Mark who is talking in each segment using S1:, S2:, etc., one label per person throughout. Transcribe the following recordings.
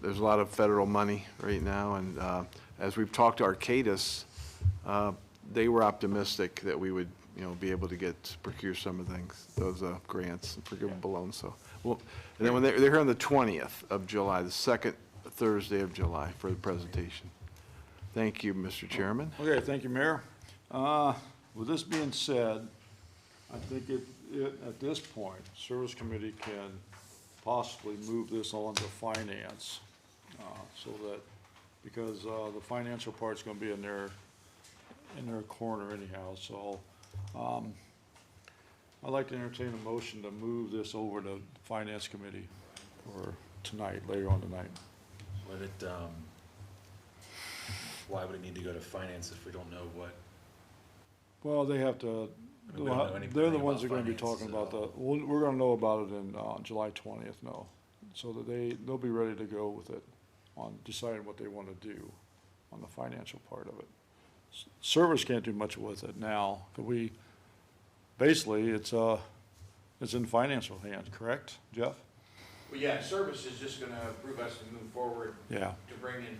S1: There's a lot of federal money right now, and uh, as we've talked to Arcadis, uh, they were optimistic that we would, you know, be able to get, procure some of things, those uh, grants, and forgivable loans, so. Well, and then when they're, they're here on the 20th of July, the second Thursday of July for the presentation. Thank you, Mr. Chairman.
S2: Okay, thank you, Mayor. Uh, With this being said, I think it, it- at this point, Service Committee can possibly move this on to Finance, uh, so that, because uh, the financial part's gonna be in their, in their corner anyhow, so um, I'd like to entertain a motion to move this over to Finance Committee for tonight, later on tonight.
S3: Would it, um, why would it need to go to finance if we don't know what?
S2: Well, they have to,
S3: I mean, we don't know anything
S2: they're the
S3: about
S2: ones that are gonna be
S3: finances
S2: talking
S3: at
S2: about the,
S3: all.
S2: we're, we're gonna know about it in, uh, July twentieth, no. So that they, they'll be ready to go with it on deciding what they wanna do on the financial part of it. S- Service can't do much with it now, 'cause we, basically, it's, uh, it's in financial hands, correct, Jeff?
S4: Well, yeah, service is just gonna approve us to move forward
S2: Yeah,
S4: to bring in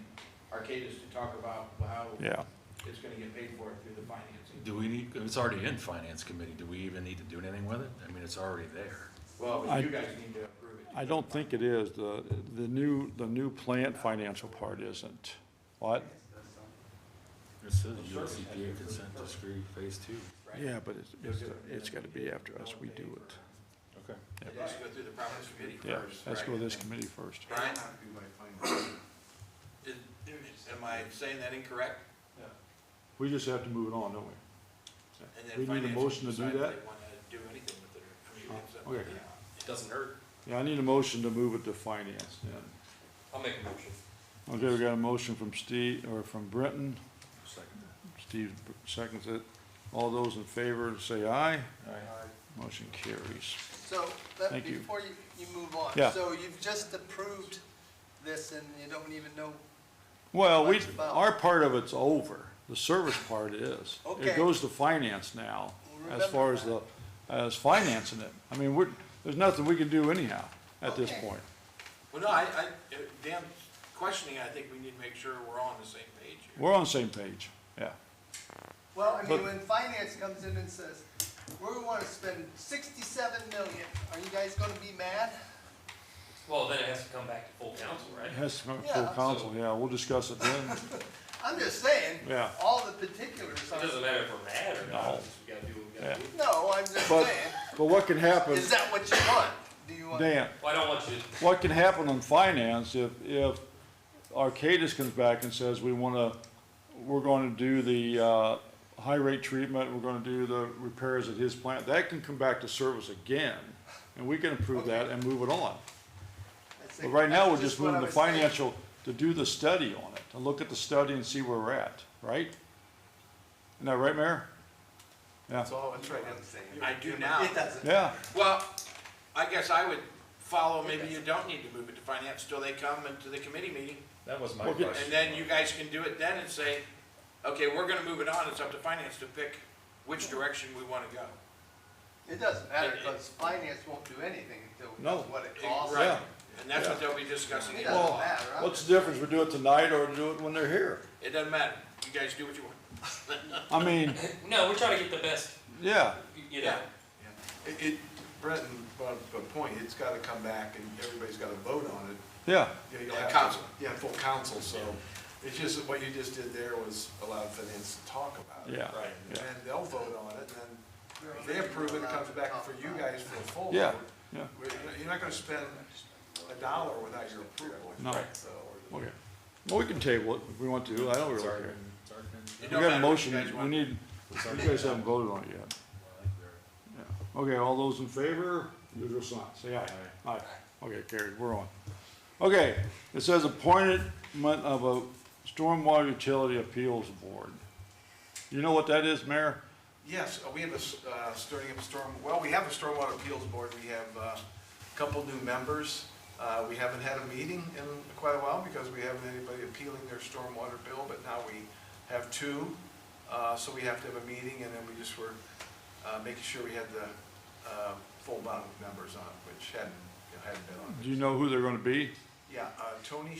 S4: Arcadis to talk about how
S2: yeah.
S4: it's gonna get paid for through the financing.
S3: Do we need, it's already in finance committee, do we even need to do anything with it? I mean, it's already there.
S4: Well,
S2: I-
S4: but you guys need to approve it.
S2: I don't think it is, the, the new, the new plant financial part isn't. What?
S3: It says USCPA consent decree phase two.
S2: Yeah, but it's, it's, it's gotta be after us, we do it.
S3: Okay.
S4: It has to go through the province committee
S2: Yeah,
S4: first,
S2: let's go
S4: right?
S2: with this committee first.
S4: Brian? Is- Am I saying that incorrect?
S2: We just have to move it on, don't we?
S4: And
S2: We
S4: then
S2: need a
S4: finance
S2: motion to do
S4: can decide if
S2: that?
S4: they wanna do anything with it, or, I mean, it's up
S2: Oh, okay.
S4: to them. It doesn't hurt.
S2: Yeah, I need a motion to move it to finance then.
S4: I'll make a motion.
S2: Okay, we got a motion from Steve, or from Brenton. Steve seconds it. All those in favor, say aye. Motion carries.
S5: So, let-
S2: Thank you.
S5: before you, you move on.
S2: Yeah.
S5: So you've just approved this and you don't even know,
S2: Well, we,
S5: What's about?
S2: our part of it's over. The service part is. It
S5: Okay.
S2: goes to finance now,
S5: Well,
S2: as far
S5: remember
S2: as the, as financing it. I mean, we're, there's nothing we can do anyhow at this
S5: Okay.
S2: point.
S4: Well, no, I, I, Dan, questioning, I think we need to make sure we're all on the same page here.
S2: We're on the same page, yeah.
S5: well, I
S2: But-
S5: mean, when finance comes in and says, we wanna spend sixty-seven million, are you guys gonna be mad?
S6: Well, then it has to come back to full council, right?
S2: It has to come to full
S5: Yeah.
S2: council, yeah, we'll discuss it then.
S5: I'm just saying,
S2: Yeah.
S5: all the particulars
S6: It doesn't
S5: are,
S6: matter if we're mad or
S2: No.
S6: not, it's just we gotta do what we gotta do.
S5: no, I'm just
S2: But,
S5: saying,
S2: but what can happen,
S5: is that what you want? Do you want?
S2: Dan,
S6: Well, I don't want you to
S2: what can happen on finance if, if Arcadis comes back and says, we wanna, we're gonna do the, uh, high rate treatment, we're gonna do the repairs at his plant, that can come back to service again, and we can approve that and move it on.
S5: I
S2: But
S5: think
S2: right now,
S5: that's
S2: we're just
S5: what I
S2: moving the
S5: was saying.
S2: financial, to do the study on it, to look at the study and see where we're at, right? Isn't that right, Mayor? Yeah,
S4: Oh, that's right.
S5: I'm saying.
S4: I do now.
S5: It doesn't.
S2: yeah.
S4: Well, I guess I would follow, maybe you don't need to move it to finance till they come into the committee meeting.
S3: That was my
S2: Okay.
S3: question.
S4: And then you guys can do it then and say, okay, we're gonna move it on, it's up to finance to pick which direction we wanna go.
S5: It doesn't matter,
S4: It- it-
S5: cause finance won't do anything until we
S2: No.
S5: know what it costs.
S4: Right,
S2: Yeah.
S4: and that's what they'll be discussing.
S5: It
S4: here.
S5: doesn't
S2: Well,
S5: matter. I'm
S2: What's the difference, we do it tonight or do it when they're here?
S4: It doesn't matter, you guys do what you want.
S2: I mean,
S6: No, we're trying to get the best,
S2: yeah,
S6: you know.
S7: It, it, Brenton brought up a good point, it's gotta come back and everybody's gotta vote on it.
S2: yeah,
S7: You know, you'll
S4: Yeah,
S7: have-
S4: council.
S7: Yeah, full council, so it's just, what you just did there was allow finance to talk about it.
S2: yeah,
S7: And
S2: yeah,
S7: then they'll vote on it, and then if they approve it, it comes back for you guys for a full vote.
S2: Yeah, yeah.
S7: We're- You're not gonna spend a dollar without your approval.
S2: No. Right.
S7: So,
S2: okay. Well, we can table it if we want to, I don't really care.
S3: It's already been-
S4: It
S2: We
S4: don't
S2: got a
S4: matter what you
S2: motion,
S4: guys
S2: we
S4: want.
S2: need, you guys haven't voted on it yet. Yeah. Okay, all those in favor, usual sign, say aye. Aye. Okay, carried, we're on. Okay, it says appointment of a stormwater utility appeals board. You know what that is, Mayor?
S7: Yes, uh, we have a, s- uh, starting up storm, well, we have a stormwater appeals board, we have uh, a couple new members. Uh, We haven't had a meeting in quite a while because we haven't had anybody appealing their stormwater bill, but now we have two. Uh, So we have to have a meeting and then we just were uh, making sure we had the uh, full amount of members on, which hadn't, you know, hadn't been on.
S2: Do you know who they're gonna be?
S4: Yeah, uh, Tony